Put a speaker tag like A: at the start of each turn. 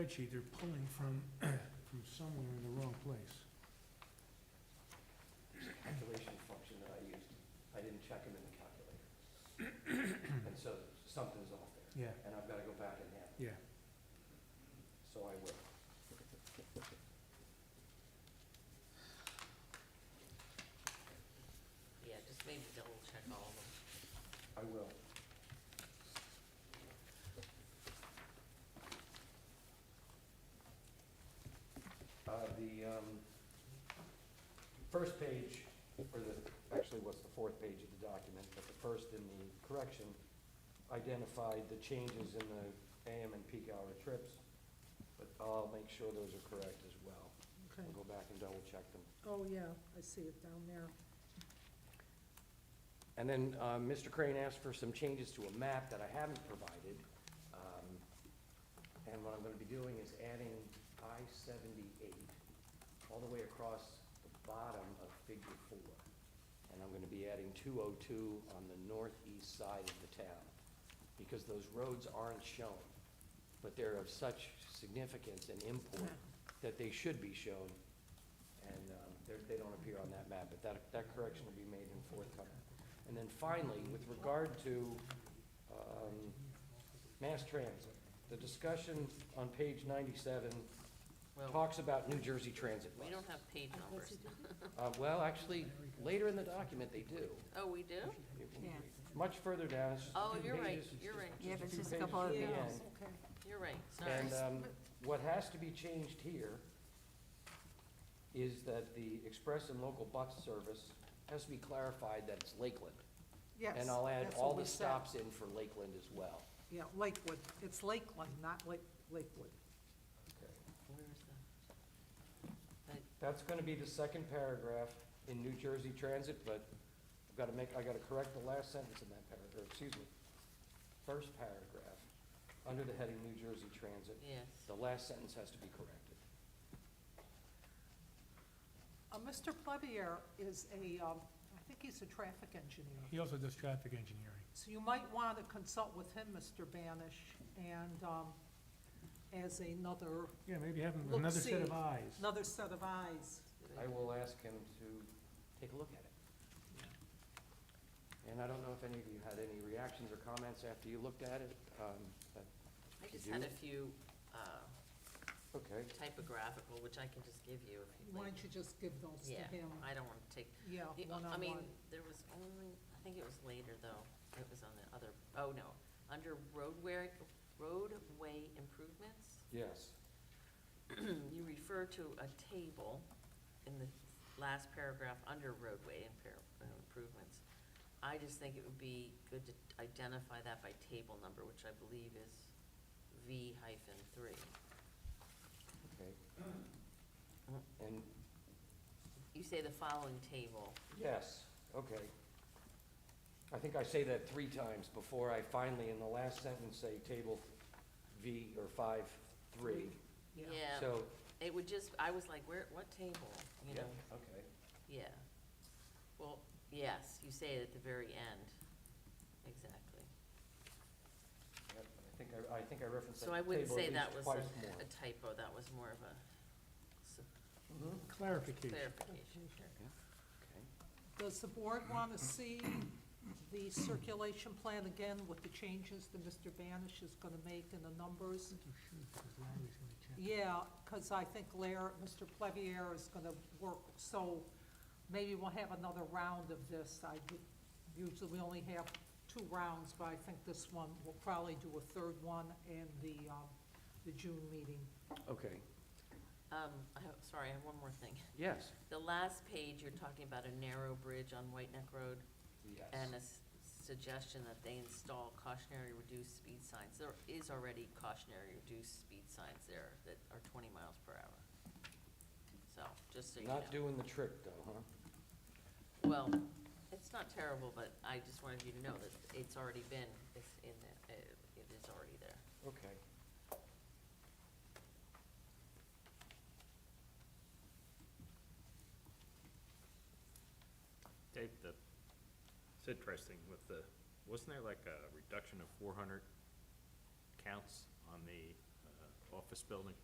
A: spreadsheet, they're pulling from, from somewhere in the wrong place.
B: calculation function that I used. I didn't check them in the calculator. And so something's off there,
A: Yeah,
B: and I've gotta go back and add,
A: yeah.
B: so I will.
C: Yeah, just maybe double check all of them.
B: I will. Uh, the, um, first page, or the, actually, what's the fourth page of the document, but the first in the correction identified the changes in the AM and peak hour trips, but I'll make sure those are correct as well.
D: Okay.
B: We'll go back and double check them.
D: Oh, yeah, I see it down there.
B: And then uh, Mr. Crane asked for some changes to a map that I haven't provided. Um, And what I'm gonna be doing is adding I-78 all the way across the bottom of Figure 4. And I'm gonna be adding 202 on the northeast side of the town, because those roads aren't shown, but they're of such significance and import that they should be shown, and um, they're- they don't appear on that map, but that, that correction will be made in forthcoming. And then finally, with regard to um, mass transit, the discussion on page 97
C: Well,
B: talks about New Jersey Transit
C: we don't
B: Bus.
C: have page numbers.
B: Uh, Well, actually, later in the document, they do.
C: Oh, we do?
B: It-
E: Yeah.
B: Much further down, it's just a
C: Oh,
B: few
C: you're right,
B: pages.
C: you're right,
E: Yeah,
B: a
E: but it's
B: few
E: just a
B: pages
E: couple of
B: from the
D: Yeah,
E: things.
B: end.
D: okay.
C: you're right, sorry.
B: And um, what has to be changed here is that the express and local bus service has to be clarified that it's Lakeland.
D: Yes.
B: And I'll add
D: that's
B: all the
D: what we said.
B: stops in for Lakeland as well.
D: Yeah, Lakewood, it's Lakeland, not Lake, Lakewood.
C: Where is the,
B: That's gonna be the second paragraph in New Jersey Transit, but I've gotta make, I gotta correct the last sentence in that paragraph, excuse me. First paragraph, under the heading New Jersey Transit,
C: yes.
B: the last sentence has to be corrected.
D: Uh, Mr. Plebier is a, um, I think he's a traffic engineer.
A: He also does traffic engineering.
D: So you might want to consult with him, Mr. Banish, and um, as another,
A: Yeah, maybe have him with
D: Look,
A: another set of
D: see.
A: eyes.
D: another set of eyes.
C: Did I-
B: I will ask him to take a look at it. And I don't know if any of you had any reactions or comments after you looked at it, um, but,
C: I
B: you
C: just had
B: do?
C: a few uh,
B: okay.
C: typographical, which I can just give you if you'd
D: Why
C: like.
D: don't you just give those to
C: Yeah,
D: him?
C: I don't want to take,
D: Yeah,
C: the- I mean,
D: one-on-one.
C: there was only, I think it was later though, it was on the other, oh no, under roadway, roadway improvements.
B: Yes,
C: you refer to a table in the last paragraph under roadway impair- uh, improvements. I just think it would be good to identify that by table number, which I believe is V hyphen three.
B: okay. And,
C: You say the following table,
B: yes, okay. I think I say that three times before I finally, in the last sentence, say table V or five, three.
D: Yeah,
C: yeah,
B: So,
C: it would just, I was like, where, what table, you
B: yeah,
C: know,
B: okay.
C: yeah. Well, yes, you say it at the very end, exactly.
B: Yep, I think I, I think I referenced
C: So I
B: that
C: wouldn't
B: table
C: say
B: at
C: that
B: least
C: was
B: twice
C: a-
B: more.
C: a typo, that was more of a s-
D: Mm-hmm.
B: Mhm,
A: Clarification.
C: clarification, sure.
B: okay.
D: Does the board want to see the circulation plan again with the changes that Mr. Banish is going to make in the numbers?
A: You should, 'cause Larry's gonna check.
D: Yeah, because I think Lair, Mr. Plevier is going to work, so maybe we'll have another round of this. I do- usually, we only have two rounds, but I think this one, we'll probably do a third one in the, um, the June meeting.
B: Okay,
C: Um, I have, sorry, I have one more thing.
B: yes.
C: The last page, you're talking about a narrow bridge on White Neck Road and a s- suggestion that they install cautionary reduced speed signs. There is already cautionary reduced speed signs there that are twenty miles per hour. So, just so you know.
B: Not doing the trick, though, huh?
C: Well, it's not terrible, but I just wanted you to know that it's already been, it's in the, it it is already there.
B: Okay.
F: Dave, the, it's interesting with the, wasn't there like a reduction of four hundred counts on the, uh, office building.